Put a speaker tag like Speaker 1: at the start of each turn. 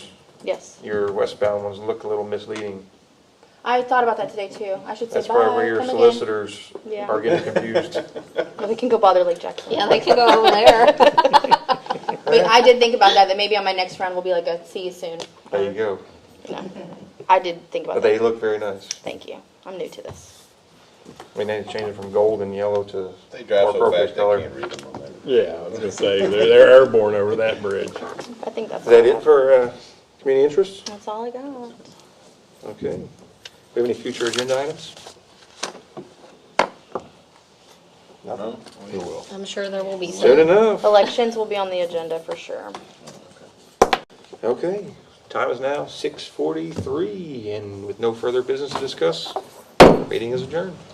Speaker 1: Yes.
Speaker 2: Your westbound ones look a little misleading.
Speaker 1: I thought about that today too. I should say
Speaker 2: That's
Speaker 1: bye,
Speaker 2: probably where your
Speaker 1: come again.
Speaker 2: solicitors
Speaker 1: Yeah.
Speaker 2: are getting confused.
Speaker 1: Well, They can go bother Lake Jackson.
Speaker 3: Yeah, they can go over there.
Speaker 1: But I did think about that, that maybe on my next round will be like a see you soon.
Speaker 2: There you go.
Speaker 1: No. I did think
Speaker 2: But
Speaker 1: about
Speaker 2: they
Speaker 1: that.
Speaker 2: look very nice.
Speaker 1: Thank you. I'm new to this.
Speaker 2: I mean, they changed it from gold and yellow to more
Speaker 4: They drive so
Speaker 2: appropriate
Speaker 4: fast, they
Speaker 2: color.
Speaker 4: can't read them on there.
Speaker 5: Yeah, I was gonna say, they're, they're airborne over that bridge.
Speaker 1: I think that's.
Speaker 2: Is that
Speaker 1: all I
Speaker 2: it
Speaker 1: have.
Speaker 2: for uh, community interests?
Speaker 1: That's all I got.
Speaker 2: Okay. Do we have any future agenda items?
Speaker 4: No? We will.
Speaker 3: I'm sure there will be
Speaker 2: Soon
Speaker 3: some.
Speaker 2: enough.
Speaker 1: Elections will be on the agenda for sure.
Speaker 2: Okay. Time is now 6:43, and with no further business to discuss, meeting is adjourned.